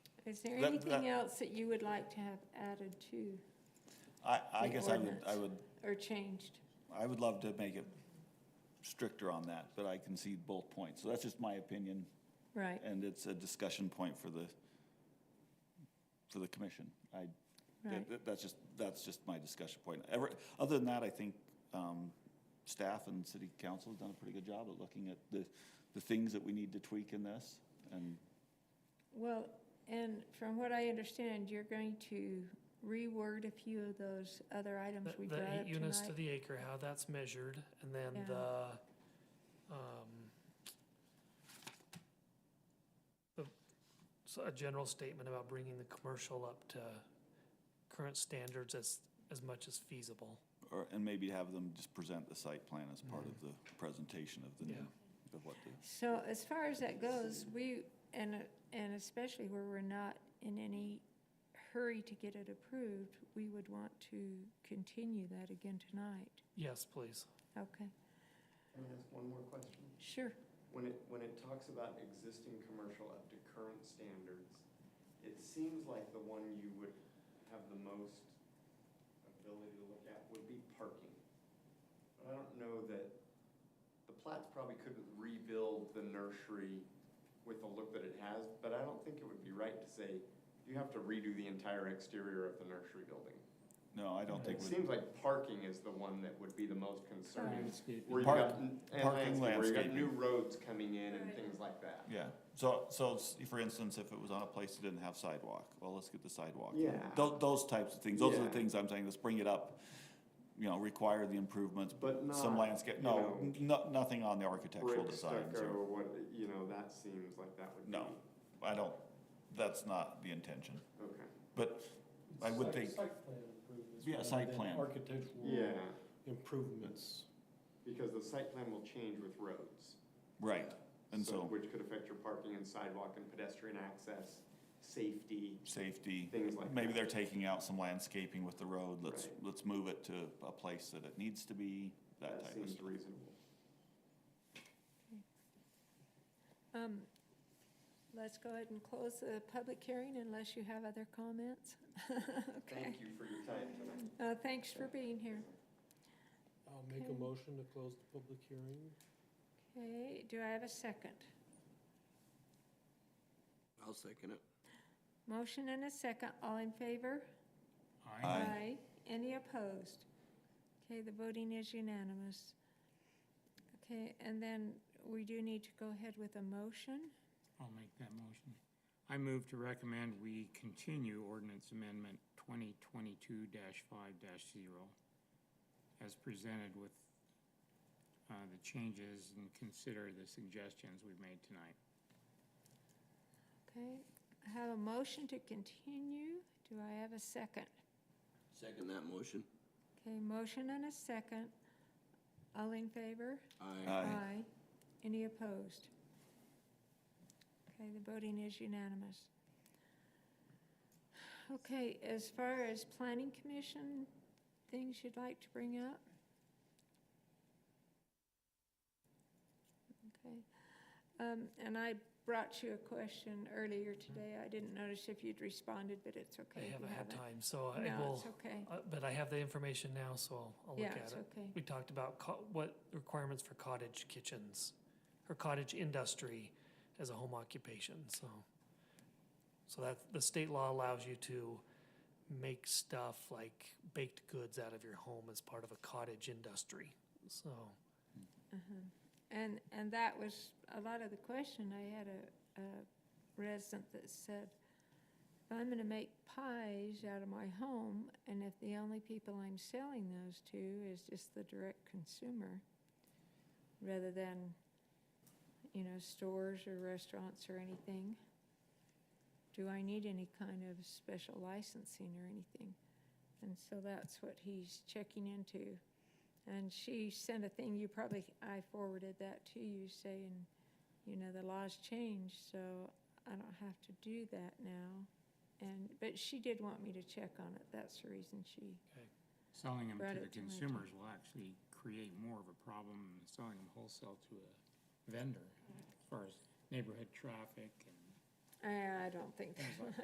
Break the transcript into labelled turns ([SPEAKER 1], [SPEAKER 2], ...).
[SPEAKER 1] Is there
[SPEAKER 2] That-
[SPEAKER 1] anything
[SPEAKER 2] that-
[SPEAKER 1] else that you would like to have added to
[SPEAKER 2] I, I
[SPEAKER 1] The
[SPEAKER 2] guess I would,
[SPEAKER 1] ordinance.
[SPEAKER 2] I would,
[SPEAKER 1] or changed?
[SPEAKER 2] I would love to make it stricter on that, but I can see both points. So that's just my opinion,
[SPEAKER 1] Right,
[SPEAKER 2] and it's a discussion point for the, for the commission. I, that-
[SPEAKER 1] right.
[SPEAKER 2] that- that's just, that's just my discussion point. Ever, other than that, I think, um, staff and city council have done a pretty good job at looking at the, the things that we need to tweak in this. And
[SPEAKER 1] Well, and from what I understand, you're going to reword a few of those other items
[SPEAKER 3] The-
[SPEAKER 1] we brought
[SPEAKER 3] The
[SPEAKER 1] up
[SPEAKER 3] eight units to
[SPEAKER 1] tonight.
[SPEAKER 3] the acre, how that's measured, and
[SPEAKER 1] Yeah.
[SPEAKER 3] then the, um, the, so a general statement about bringing the commercial up to current standards as, as much as feasible.
[SPEAKER 2] Or, and maybe have them just present the site plan as part
[SPEAKER 1] Mm-hmm.
[SPEAKER 2] of the presentation of the new, of what the,
[SPEAKER 1] So as far as that goes, we, and, and especially where we're not in any hurry to get it approved, we would want to continue that again tonight.
[SPEAKER 3] Yes, please.
[SPEAKER 1] Okay,
[SPEAKER 4] Can I ask one more question?
[SPEAKER 1] sure.
[SPEAKER 4] When it, when it talks about existing commercial up to current standards, it seems like the one you would have the most ability to look at would be parking. But I don't know that, the Platts probably couldn't rebuild the nursery with the look that it has, but I don't think it would be right to say, you have to redo the entire exterior of the nursery building.
[SPEAKER 2] no, I don't think.
[SPEAKER 4] It
[SPEAKER 2] we-
[SPEAKER 4] seems like parking is the one that would be the most concerning. Where
[SPEAKER 2] you
[SPEAKER 4] you've
[SPEAKER 2] Park-
[SPEAKER 4] got, and
[SPEAKER 2] parking,
[SPEAKER 4] landscape, where you've got new
[SPEAKER 2] landscaping.
[SPEAKER 4] roads coming in and
[SPEAKER 1] Right.
[SPEAKER 4] things like that.
[SPEAKER 2] Yeah, so, so s- for instance, if it was on a place that didn't have sidewalk, well, let's get the sidewalk.
[SPEAKER 4] Yeah.
[SPEAKER 2] Those, those types of things, those are the
[SPEAKER 4] Yeah.
[SPEAKER 2] things I'm saying, let's bring it up, you know, require the improvements,
[SPEAKER 4] But not.
[SPEAKER 2] some landscape,
[SPEAKER 4] you
[SPEAKER 2] no,
[SPEAKER 4] know,
[SPEAKER 2] n- no, nothing on the architectural
[SPEAKER 4] Brick
[SPEAKER 2] designs
[SPEAKER 4] stucco,
[SPEAKER 2] or,
[SPEAKER 4] what, you know, that seems like that would be.
[SPEAKER 2] No. I don't, that's not the intention.
[SPEAKER 4] Okay,
[SPEAKER 2] But I would
[SPEAKER 5] Site-
[SPEAKER 2] think-
[SPEAKER 5] Site plan improvements.
[SPEAKER 2] Yeah,
[SPEAKER 5] rather
[SPEAKER 2] site
[SPEAKER 5] than
[SPEAKER 2] plan.
[SPEAKER 5] Architectural
[SPEAKER 4] yeah,
[SPEAKER 5] improvements.
[SPEAKER 4] because the site plan will change with roads.
[SPEAKER 2] Right, and so,
[SPEAKER 4] Which could affect your parking and sidewalk and pedestrian access, safety,
[SPEAKER 2] safety,
[SPEAKER 4] things like that.
[SPEAKER 2] maybe they're taking out some landscaping with the road, let's,
[SPEAKER 4] Right.
[SPEAKER 2] let's move it to a place that it needs to be, that
[SPEAKER 4] That
[SPEAKER 2] type of
[SPEAKER 4] seems
[SPEAKER 2] stuff.
[SPEAKER 4] reasonable.
[SPEAKER 1] Um, let's go ahead and close the public hearing unless you have other comments. Okay.
[SPEAKER 4] Thank you for your time tonight.
[SPEAKER 1] Uh, thanks for being here.
[SPEAKER 5] I'll make a
[SPEAKER 1] Okay.
[SPEAKER 5] motion to close the public hearing.
[SPEAKER 1] Okay, do I have a second?
[SPEAKER 6] I'll second it.
[SPEAKER 1] Motion and a second, all in favor?
[SPEAKER 2] Aye.
[SPEAKER 1] Any opposed? Okay, the voting is unanimous. Okay, and then we do need to go ahead with a motion.
[SPEAKER 7] I'll make that motion. I move to recommend we continue ordinance amendment twenty twenty-two five zero as presented with uh, the changes and consider the suggestions we've made tonight.
[SPEAKER 1] Okay, I have a motion to continue. Do I have a second?
[SPEAKER 6] Second that motion.
[SPEAKER 1] Okay, motion and a second. All in favor?
[SPEAKER 6] Aye.
[SPEAKER 2] Aye.
[SPEAKER 1] Any opposed? Okay, the voting is unanimous. Okay, as far as planning commission, things you'd like to bring up? Okay, um, and I brought you a question earlier today. I didn't notice if you'd responded, but it's
[SPEAKER 3] I
[SPEAKER 1] okay. if you
[SPEAKER 3] haven't had time, so I
[SPEAKER 1] No,
[SPEAKER 3] will,
[SPEAKER 1] it's okay.
[SPEAKER 3] uh, but I have the information now, so I'll- I'll look
[SPEAKER 1] Yeah,
[SPEAKER 3] at
[SPEAKER 1] it's
[SPEAKER 3] it.
[SPEAKER 1] okay.
[SPEAKER 3] We talked about co- what requirements for cottage kitchens or cottage industry as a home occupation, so. So that, the state law allows you to make stuff like baked goods out of your home as part of a cottage industry, so.
[SPEAKER 1] And, and that was a lot of the question. I had a, a resident that said, if I'm gonna make pies out of my home, and if the only people I'm selling those to is just the direct consumer, rather than, you know, stores or restaurants or anything, do I need any kind of special licensing or anything? And so that's what he's checking into. And she sent a thing, you probably, I forwarded that to you saying, you know, the laws changed, so I don't have to do that now. And, but she did want me to check on it, that's the reason she,
[SPEAKER 7] Selling them
[SPEAKER 1] Brought
[SPEAKER 7] to
[SPEAKER 1] it
[SPEAKER 7] the
[SPEAKER 1] to my attention.
[SPEAKER 7] consumers will actually create more of a problem than selling them wholesale to a vendor as far as neighborhood traffic and
[SPEAKER 1] I, I don't think.
[SPEAKER 7] things like that.